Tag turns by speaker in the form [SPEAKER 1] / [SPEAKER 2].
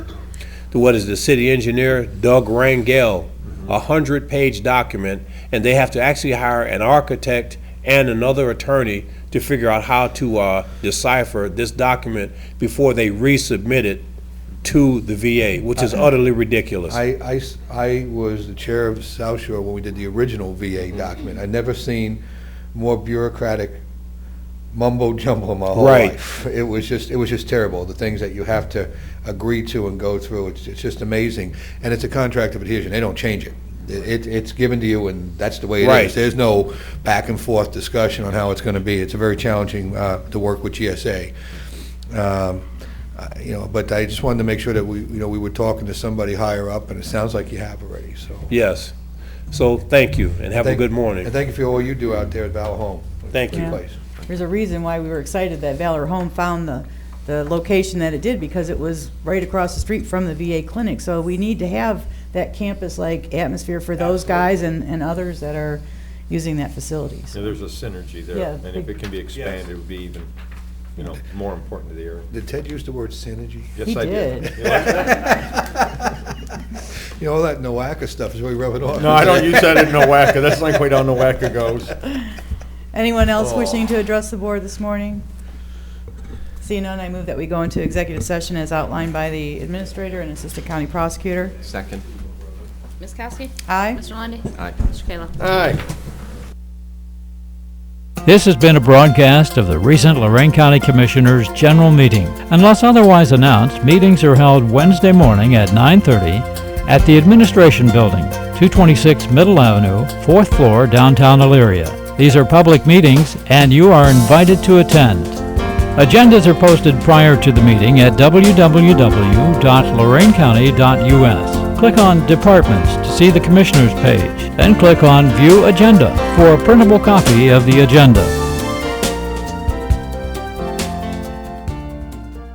[SPEAKER 1] to what is the city engineer, Doug Rangel, a hundred-page document, and they have to actually hire an architect and another attorney to figure out how to uh, decipher this document before they resubmit it to the VA, which is utterly ridiculous.
[SPEAKER 2] I, I s- I was the chair of South Shore when we did the original VA document. I'd never seen more bureaucratic mumbo jumbo in my whole
[SPEAKER 1] Right.
[SPEAKER 2] life. It was just, it was just terrible, the things that you have to agree to and go through. It's, it's just amazing. And it's a contract of adhesion. They don't change it. It, it's given to you and that's the way it is.
[SPEAKER 1] Right.
[SPEAKER 2] There's no back and forth discussion on how it's going to be. It's very challenging, uh, to work with GSA. Um, I- You know, but I just wanted to make sure that we, you know, we were talking to somebody higher up, and it sounds like you have already, so.
[SPEAKER 1] Yes. So thank you, and have a
[SPEAKER 2] Thank-
[SPEAKER 1] good morning.
[SPEAKER 2] And thank you for all you do out there at Valor Home.
[SPEAKER 1] Thank you.
[SPEAKER 2] Great place.
[SPEAKER 3] There's a reason why we were excited that Valor Home found the, the location that it did, because it was right across the street from the VA clinic. So we need to have that campus-like atmosphere for those guys and, and others that are using that facility.
[SPEAKER 4] Yeah, there's a synergy
[SPEAKER 3] Yeah,
[SPEAKER 4] there, and if
[SPEAKER 3] big-
[SPEAKER 4] it can be expanded, it would be even, you know, more important to the area.
[SPEAKER 2] Did Ted use the word synergy?
[SPEAKER 4] Yes,
[SPEAKER 3] He
[SPEAKER 4] I
[SPEAKER 3] did.
[SPEAKER 4] You like that?
[SPEAKER 2] You know, all that NOACA stuff is really rubbing off.
[SPEAKER 4] No, I don't use that in Nowaka, that's like way down Nowaka goes.
[SPEAKER 3] Anyone else wishing to address the board this morning? Seeing none, I move that we go into executive session as outlined by the administrator and assistant county prosecutor.
[SPEAKER 5] Second.
[SPEAKER 6] Ms. Kowski?
[SPEAKER 3] Aye?
[SPEAKER 6] Mr. Lundy,
[SPEAKER 5] Aye.
[SPEAKER 6] Mr. Kayla?
[SPEAKER 4] Aye.
[SPEAKER 7] This has been a broadcast of the recent Lorraine County Commissioners' General Meeting. Unless otherwise announced, meetings are held Wednesday morning at 9:30 at the Administration Building, 226 Middle Avenue, 4th floor, downtown Elyria. These are public meetings, and you are invited to attend. Agendas are posted prior to the meeting at www.lorainecounty.us. Click on Departments to see the Commissioners page, then click on View Agenda for a printable copy of the agenda.